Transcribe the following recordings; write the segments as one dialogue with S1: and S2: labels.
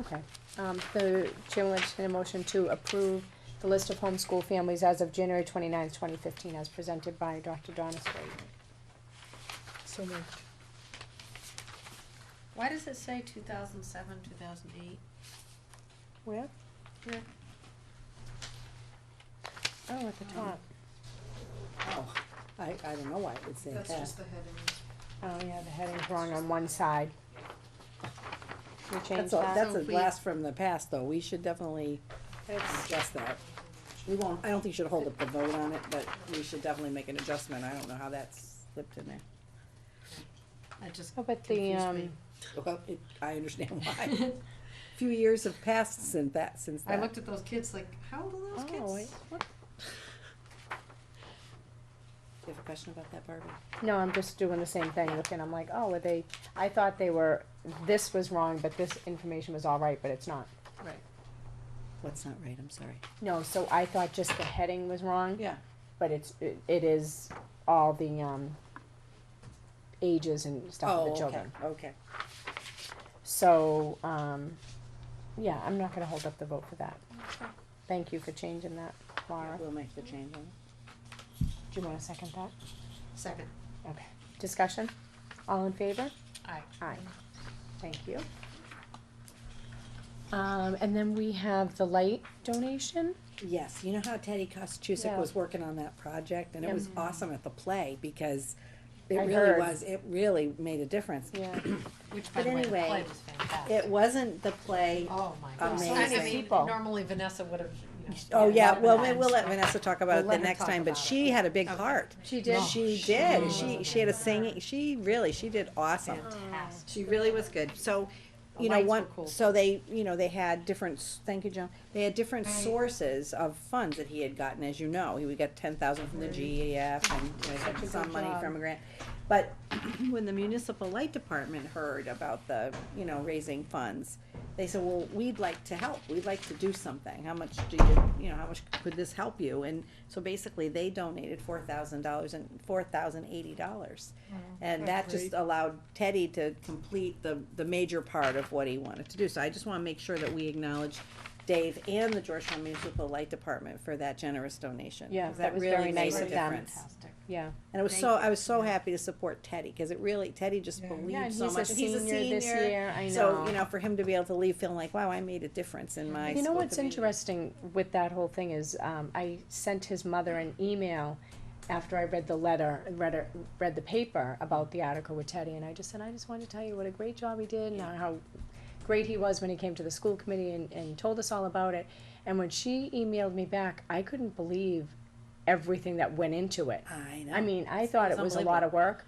S1: Okay, um, the chair will entertain a motion to approve the list of homeschool families as of January twenty-ninth, twenty fifteen, as presented by Dr. Donna Straton.
S2: So moved.
S3: Why does it say two thousand seven, two thousand eight?
S1: Where?
S3: Here.
S1: Oh, at the top.
S2: Oh, I, I don't know why it would say that.
S4: That's just the headings.
S1: Oh, yeah, the heading's wrong on one side. Should we change
S2: That's a,
S1: that?
S2: that's
S3: So
S2: a
S3: if we-
S2: blast from the past, though, we should definitely
S1: It's-
S2: adjust that. We won't, I don't think we should hold up the vote on it, but we should definitely make an adjustment, I don't know how that's slipped in there.
S3: I just
S1: How about the,
S3: confused
S1: um,
S3: me.
S2: Well, it, I understand why. Few years have passed since that, since
S3: I
S2: that.
S3: looked at those kids like, how old are those kids?
S1: Oh, wait, what?
S2: Do you have a question about that, Barbie?
S1: No, I'm just doing the same thing, looking, I'm like, oh, were they, I thought they were, this was wrong, but this information was all right, but it's not.
S3: Right.
S2: What's not right, I'm sorry.
S1: No, so I thought just the heading was wrong.
S2: Yeah.
S1: but it's it, it is all the um ages and stuff
S2: Oh,
S1: of the
S2: okay,
S1: children.
S2: Okay,
S1: So um yeah, I'm not gonna hold up the vote for that. Thank you for changing that, Laura.
S2: we'll make the change on it.
S1: Do you wanna second that?
S3: Second,
S1: Okay. Discussion? All in favor?
S3: aye.
S1: Aye. Thank you. Um and then we have the light donation.
S2: Yes, you know how Teddy Kostusic
S1: Yeah.
S2: was working on that project, and it was
S1: Yep.
S2: awesome at the play, because it
S1: I
S2: really
S1: heard.
S2: was, it really made a difference.
S1: Yeah.
S3: Which by
S2: But
S3: the way, the
S2: anyway,
S3: play was fantastic.
S2: It wasn't the play,
S3: Oh, my gosh.
S2: Amazing.
S3: I- I mean,
S1: People.
S3: Normally Vanessa would have, you know.
S2: oh yeah,
S3: wanted
S2: well,
S3: that.
S2: we- we'll let Vanessa talk
S1: We'll
S2: about it
S1: let
S2: the
S1: her
S2: next
S1: talk
S2: time, but
S1: about it.
S2: she had a big
S3: Okay.
S2: heart.
S1: She
S3: did? No,
S2: She did,
S3: she
S2: she,
S3: was
S2: she had a singing, she really, she did awesome.
S3: Fantastic.
S2: She really was good. So, you know,
S3: lights
S2: one,
S3: were cool.
S2: so they, you know, they had different, s- thank you, John, they had different sources of funds that he had gotten, as you know. He would get ten thousand from the GEF and you know,
S1: Such a
S2: some
S1: good
S2: money
S1: job.
S2: from a grant. But when the municipal light department heard about the, you know, raising funds, they said, well, we'd like to help, we'd like to do something, how much do you, you know, how much could this help you? And so basically, they donated four thousand dollars and, four thousand eighty dollars. And that just allowed Teddy to complete the, the major part of what he wanted to do, so I just wanna make sure that we acknowledge Dave and the Georgetown Municipal Light Department for that generous donation.
S1: Yeah,
S2: 'cause
S1: that was
S2: really
S1: very
S2: made
S1: nice
S2: a
S1: of them.
S2: difference.
S3: Fantastic.
S1: Yeah.
S2: And it was
S3: Thank
S2: so,
S3: you.
S2: I was so happy to support Teddy, cause it really, Teddy just
S4: Yeah.
S1: Yeah,
S2: believed
S1: and
S2: so
S1: he's a
S2: much, he's
S1: senior
S2: a
S1: this
S2: senior.
S1: year, I know.
S2: So, you know, for him to be able to leave feeling like, wow, I made a difference in my
S1: You know
S2: school
S1: what's
S2: community."
S1: interesting with that whole thing is, um, I sent his mother an email after I read the letter, read, her- read the paper about the article with Teddy, and I just said, I just wanted to tell you what a great job he did, and how great he was when he came to the school committee and, and told us all about it. And when she emailed me back, I couldn't believe everything that went into it.
S2: I know.
S1: I mean, I thought it
S2: It's
S1: was a lot of work.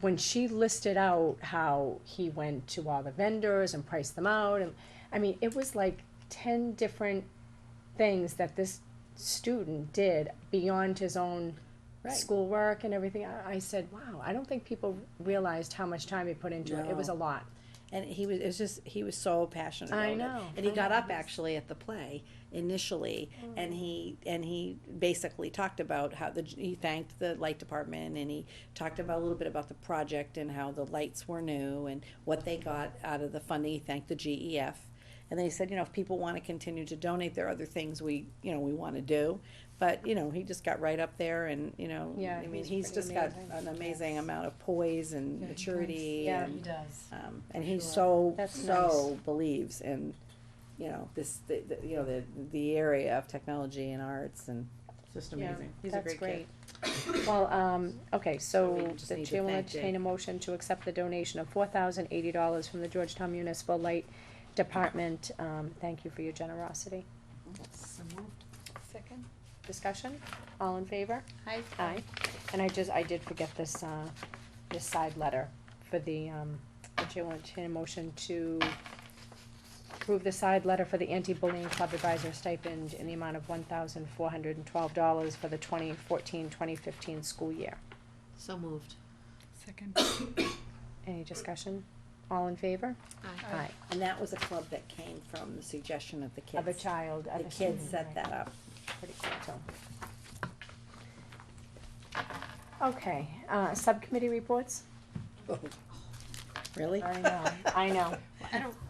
S1: When she listed out how he went to all the vendors and priced them out, and I mean, it was like ten different things that this student did beyond his own
S2: Right.
S1: schoolwork and everything. I, I said, "Wow, I don't think people realized how much time he put into it. It was a
S2: No.
S1: lot."
S2: And he was, it was just, he was so passionate about
S1: I
S2: it.
S1: know.
S2: And he
S1: I
S2: got
S1: know. Mm.
S2: up actually at the play initially, and he, and he basically talked about how the, he thanked the light department, and he talked about, a little bit about the project and how the lights were new and what they got out of the funding, he thanked the GEF. And then he said, you know, if people wanna continue to donate, there are other things we, you know, we wanna do, but, you know, he just got right up there and, you know,
S1: Yeah,
S2: I mean,
S1: he's
S2: he's
S1: pretty
S2: just got
S1: amazing.
S2: an amazing amount of poise and
S3: Yeah, he
S2: maturity
S1: Yeah.
S2: and.
S3: He does.
S2: Um, and he
S3: Sure.
S2: so,
S1: That's
S2: so believes in, you know, this, the, the- you know, the, the area of technology and arts and it's just
S1: Yeah,
S2: amazing. He's a
S1: That's
S2: great kid.
S1: Well, um, okay,
S2: we
S1: so
S2: just
S1: the
S2: need to
S1: chair will
S2: thank Jay.
S1: entertain a motion to accept the donation of four thousand eighty dollars from the Georgetown Municipal Light Department. Um, thank you for your generosity.
S3: So moved.
S4: Second?
S1: Discussion? All in favor?
S3: Aye.
S1: Aye. And I just, I did forget this, uh, this side letter for the, um, the chair will entertain a motion to approve the side letter for the anti-bullying club advisor stipend in the amount of one thousand four hundred and twelve dollars for the 2014-2015 school year.
S3: So moved.
S4: Second.
S1: Any discussion? All in favor?
S3: Aye.
S4: Aye.
S2: And that was a club that came from the suggestion of the kids.
S1: Of a child, of
S2: The
S1: a
S2: kids
S1: student,
S2: set
S1: right.
S2: that up.
S1: Pretty cool, so. Okay, uh, subcommittee reports?
S2: Really?
S1: I know, I know.
S3: I don't,